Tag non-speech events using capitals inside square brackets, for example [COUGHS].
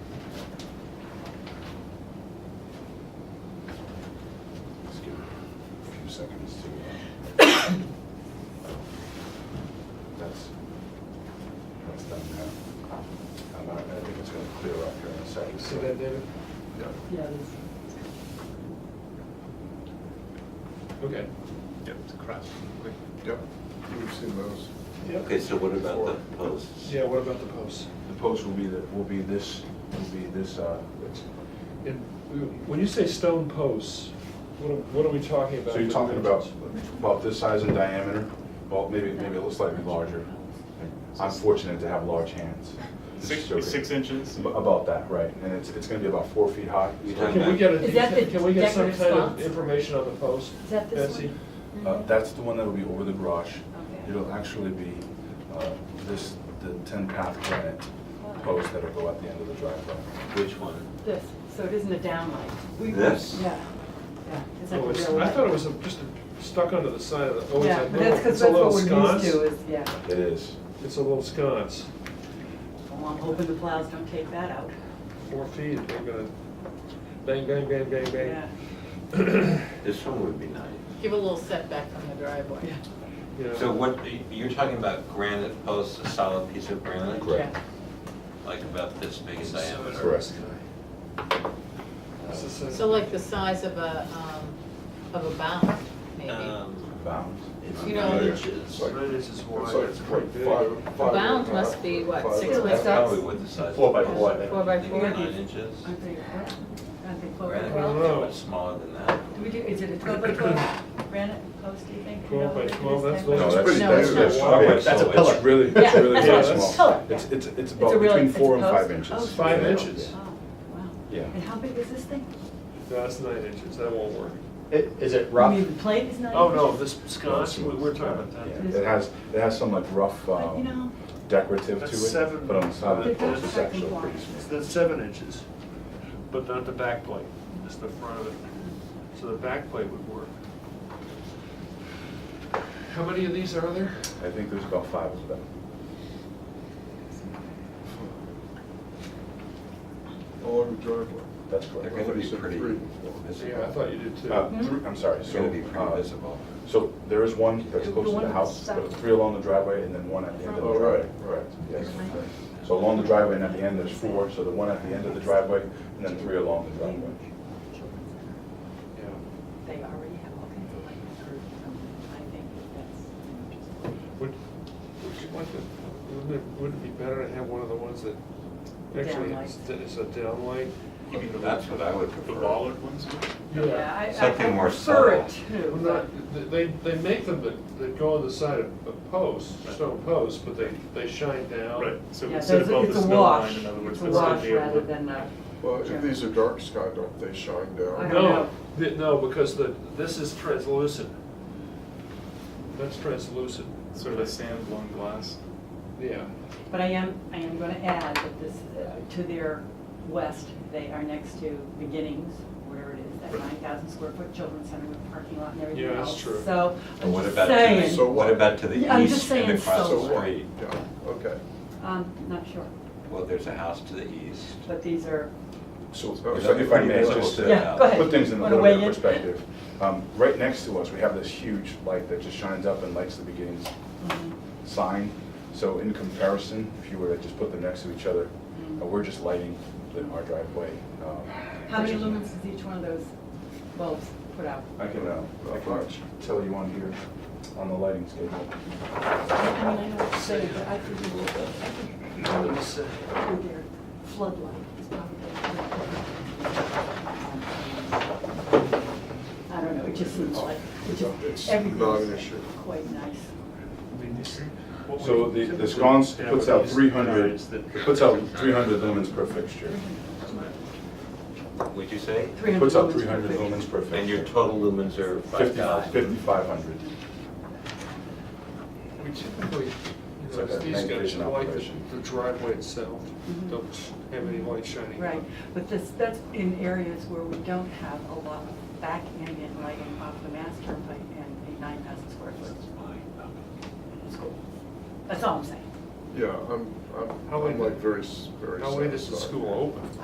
seconds to. uh, [COUGHS] That's, that's done now. And I, I think it's gonna clear up here in a second. See that, David? Yeah. Yeah, this- Okay. Yep. It's across. Yep, we've seen those. Okay, so what about the posts? Yeah, what about the posts? The post will be, the will be this, will be this, uh, And when you say stone posts, what are, what are we talking about? So you're for talking about, dimensions? about this size in diameter, well, maybe, maybe a little slightly larger. I'm fortunate to have large hands. Six, Joking. six inches? Ab- About that, right, and it's, it's gonna be about four feet high. You're talking Can we get a, Is that the detail- can we get some decorative kind of spots? information on the post? Is that this Betsy? one? Uh, that's the one that'll be over the garage. Mm-hmm. Okay. It'll actually be, uh, this, the ten path granite Oh. post that'll go at the end of the driveway. Which one? This, so it isn't a downlight. This? Yeah, yeah. It's like a Oh, it's- real I light. thought it was a- just a- stuck onto the side of the, oh, Yeah, it's a but that's little, because it's a that's little what we're sconce. used to is, yeah. It is. It's a little sconce, Well, I'm hoping the plows don't take that out. four feet, they're gonna bang, bang, bang, bang, Yeah. bang. This one would be nice. Give a little setback from the driveway. you know. So what, you're talking about granite posts, a solid piece of granite? Correct. Like about this big in diameter? Correct. This is a- So like the size of a, um, of a bound, maybe. A Um, Bound. It's You know, nine the- inches. Like- inches It's like quite big. five- The five- bound must be, what, five- six Really by That's Six. probably six? what the size. Four by four, I think. Four by Maybe four? Nine inches. Aren't they, what? Aren't they twelve by Granite I don't twelve? know. posts are much smaller than that. Do we do, is it a twelve by twelve granite post, do you think? Twelve by No, it is twelve, that's ten by- little. No, It's pretty that's, that's, big. that's No, not it's big, not. That's a so pillar. it's really, Yeah, it's really that's very what it is. small. Pillar, yeah. It's, it's, it's a about real- between it's a four and post? five Oh. inches. Five Yeah. inches. Oh, wow. Yeah. And how big is this thing? No, it's nine inches, that won't work. I- Is it I rough? mean, the plate is not. Oh, no, this sconce, we- we're talking about Yeah, that. It has, it has some like rough But, you know, um, decorative to That's it, seven- but on the side of the But that's post, it's second actually block. pretty small. It's seven inches, but not the back plate, just the front of it. So the back plate would work. How many of these are there? I think there's about five of them. along the driveway. That's They're correct. gonna be Three, pretty three. visible. Yeah, I thought you did Oh. Uh, too. three- I'm sorry, They're so, gonna be pretty uh, visible. so there is one that's The close to one the that's house, south. but three along the driveway and then one at the end of the Oh, driveway. right, Right. right. Yes. So along the driveway and at the end, there's four, so the one at the end of the driveway and then three along the driveway. Yeah. They already have all kinds of lighting curves, I think that's. Would, would you like to, wouldn't it, would it be better to have one of the ones that actually Downlight. is is a downlight? That's what I would The prefer. bollard ones? Yeah, I- I, I Something more prefer it subtle. too, Well, but- not, they, they make them that, that go on the side of of posts, stone posts, but they, they shine down. Right, so Yeah, we so sit it's a- above it's the a snow line, wash, in other words. it's a that's gonna wash be able to- rather than a, Well, Yeah. if these are dark sky, don't they shine I down? don't know. No, th- no, because the, this is translucent. That's translucent, Sort of a sand blown glass. yeah. but I am, I am gonna add that this, uh, to their west, they are next to Beginnings, whatever it is, that nine thousand square foot children's center with parking lot and everything Yeah, that's else. true. So, But I'm What just about to saying, the, So- what about to Yeah, I'm the just east and saying across so So the what? street? Yeah, okay. um, not sure, Well, there's a house to the east. but these are, So Oh, if I- if I may, pretty just visible. to. yeah, go ahead. Put things in a Wanna little bit of weigh in? perspective. Um, Right next to us, we have this huge light that just shines up and lights the beginnings Mhm. sign. So in comparison, if you were to just put them next to each other, Mm. uh, we're just lighting the- our driveway. um, How many versus- lumens does each one of those bulbs put out? I can, uh, I can tell you on here, on the lighting schedule. I mean, I know what you're saying, but I could do a little bit. Through their floodlight is probably. I don't know, it just seems like, it It's just, not an everything's issue. quite nice. So the the sconce puts out 300, it puts out 300 lumens per fixture. Would you say? 300 Puts out lumens 300 lumens per per fixture. fixture. And your total lumens are five 50 thousand? 5,500. We typically, you It's know, like a these night guys vision like operation. the- the driveway itself, Mhm. don't have any light shining. on it. Right, but this, that's in areas where we don't have a lot of back ambient lighting off the mass turnpike and a nine thousand square foot school. That's all I'm saying. Yeah, I'm, I'm, How late I'm like did- very, s- very. How late is the satisfied. school open?